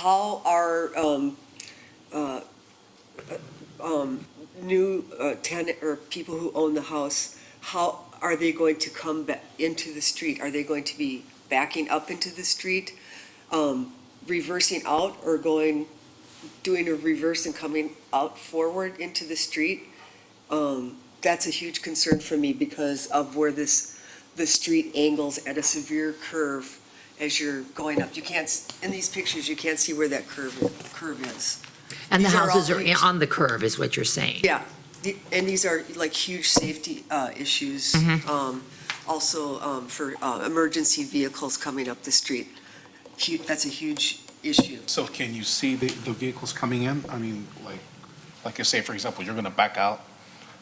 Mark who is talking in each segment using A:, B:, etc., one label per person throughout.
A: how our um, uh, um, new uh, tenant or people who own the house, how are they going to come back into the street? Are they going to be backing up into the street, um, reversing out, or going, doing a reverse and coming out forward into the street? Um, That's a huge concern for me because of where this, the street angles at a severe curve as you're going up. You can't, s- in these pictures, you can't see where that curve, curve is.
B: And the
A: These are all
B: houses are
A: things-
B: on the curve, is what you're saying?
A: Yeah, the- and these are like huge safety uh, issues, um, also um, for uh, emergency vehicles coming up the street. Hu- That's a huge issue.
C: So can you see the, the vehicles coming in? I mean, like, like I say, for example, you're going to back out.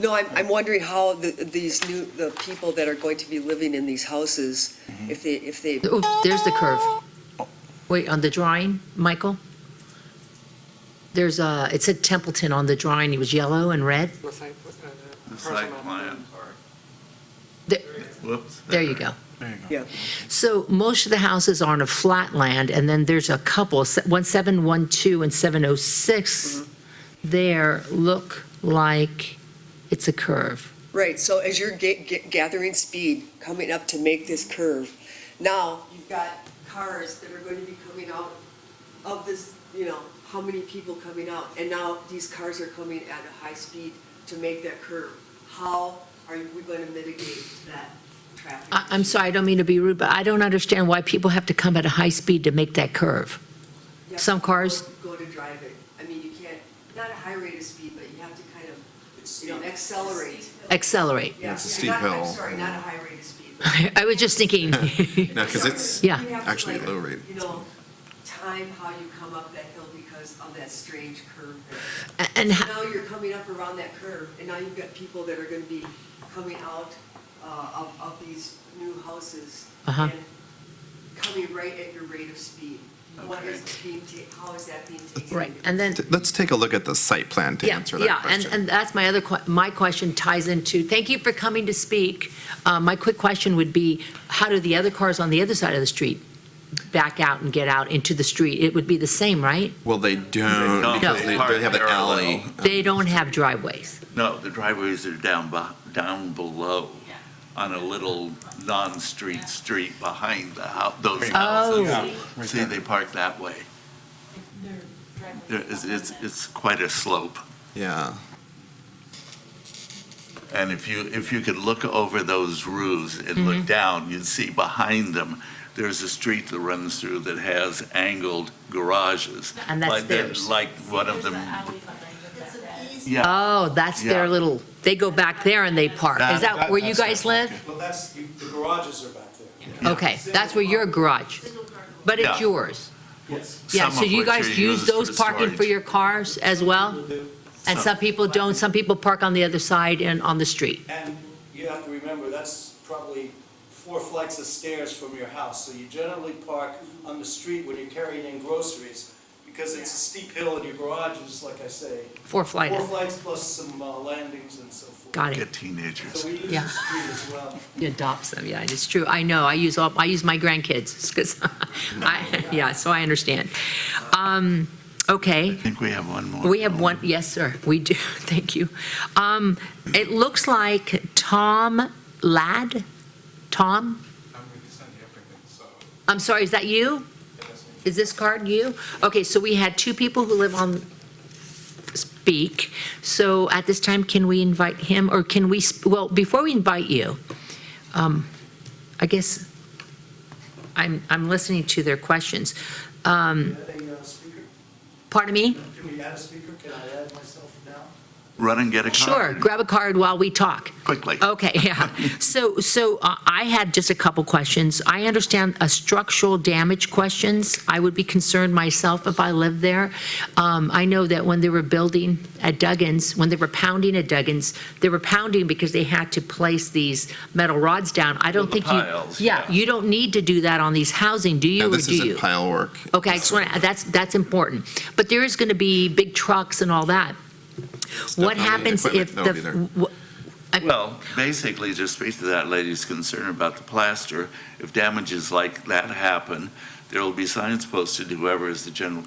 A: No, I'm, I'm wondering how the, these new, the people that are going to be living in these houses, if they, if they,
B: Oops, there's the curve. Wait, on the drawing, Michael? There's a, it said Templeton on the drawing, it was yellow and red.
D: The site, uh,
E: The
D: parcel
E: site
D: map.
E: plan.
B: There-
E: Whoops.
B: There you go.
C: There you go.
A: yeah.
B: So most of the houses are on a flat land, and then there's a couple, se- 1712 and 706
A: Mm-hmm.
B: there look like it's a curve.
A: Right, so as you're ga- ga- gathering speed, coming up to make this curve, now you've got cars that are going to be coming out of this, you know, how many people coming out? And now these cars are coming at a high speed to make that curve. How are we going to mitigate that traffic?
B: I, I'm sorry, I don't mean to be rude, but I don't understand why people have to come at a high speed to make that curve.
A: You have
B: some
A: to
B: cars-
A: Go to drive it. I mean, you can't, not a high rate of speed, but you have to kind of, you know, accelerate.
B: Accelerate.
A: Yeah,
E: It's a
A: yeah,
E: steep
A: not- I'm
E: hill.
A: sorry, not a high rate of speed. but-
B: I was just thinking,
E: No, because it's
B: Yeah.
E: actually
A: You have to, like,
E: low rate.
A: You know, time how you come up that hill because of that strange curve there.
B: and
A: So
B: ho-
A: Now you're coming up around that curve, and now you've got people that are gonna be coming out uh, of, of these new houses.
B: Uh-huh.
A: and Coming right at your rate of speed. What is
E: Okay.
A: being, ta- how is that being taken?
B: right,
A: into
B: and then,
E: T- Let's take a look at the site plan to
B: yeah,
E: answer
B: yeah,
E: that
B: and,
E: question.
B: and that's my other, que- my question ties into, thank you for coming to speak. Uh, My quick question would be, how do the other cars on the other side of the street back out and get out into the street? It would be the same, right?
E: Well, they don't,
B: No.
E: because they they have an alley.
B: They don't have driveways.
F: No, the driveways are down, be- down below on a little non-street street behind the house, those houses.
B: Oh.
C: Right
F: See,
C: there.
F: they park that way. There is, it's, it's quite a slope.
E: Yeah,
F: And if you, if you could look over those roofs and
B: Mm-hmm.
F: look down, you'd see behind them, there's a street that runs through that has angled garages.
B: And that's
F: Like the-
B: theirs.
F: Like one of them,
G: It's an easy
F: yeah,
B: Oh, that's their
F: Yeah.
B: little, they go back there and they park. Is
F: That-
B: that
C: that-
B: where you
C: that's-
B: guys live?
H: Well, that's, you- the garages are back there.
B: Okay, that's where your garage,
G: single car.
B: but it's
F: Yeah.
B: yours.
H: Yes.
B: Yeah,
F: Some
B: so
F: of
B: you
F: which
B: guys
F: are
B: use
F: used for
B: those parking for
F: storage.
B: your cars as well?
H: People do.
B: And some people don't, some people park on the other side and on the street.
H: And you have to remember, that's probably four flights of stairs from your house. So you generally park on the street when you're carrying in groceries because it's a steep hill and your garage is, like I say,
B: Four flight.
H: four flights plus some uh, landings and so forth.
B: Got
F: get
B: it.
F: teenagers.
H: So we use
B: Yeah.
H: the street as well.
B: He adopts them, yeah, it's true. I know, I use all, I use my grandkids, because I, yeah, so I understand. Um, okay.
F: I think we have one more.
B: We have one, yes, sir, we do, thank you. Um, it looks like Tom Ladd, Tom? I'm sorry, is that you? Is this card you? Okay, so we had two people who live on speak. So at this time, can we invite him, or can we, sp- well, before we invite you, um, I guess, I'm, I'm listening to their questions. Um,
H: Adding a uh, speaker,
B: pardon me?
H: can we add a speaker? Can I add myself now?
F: Run and get a
B: Sure, Oh,
F: car
B: grab a card while we talk.
F: quickly.
B: Okay, yeah. So, so uh, I had just a couple questions. I understand a structural damage questions. I would be concerned myself if I lived there. Um, I know that when they were building at Duggins, when they were pounding at Duggins, they were pounding because they had to place these metal rods down. I don't
F: the
B: think you.
F: piles, yeah.
B: you don't need to do that on these housing, do you,
E: Yeah,
B: or
E: this
B: do you?
E: isn't pile work.
B: Okay, I just want to, that's, that's important. But there is going to be big trucks and all that. What
E: Definitely
B: happens
E: equipment
B: if
E: that'll be there.
B: the, wh-
F: Well, basically, just speak to that lady's concern about the plaster. If damages like that happen, there will be signs posted, whoever is the general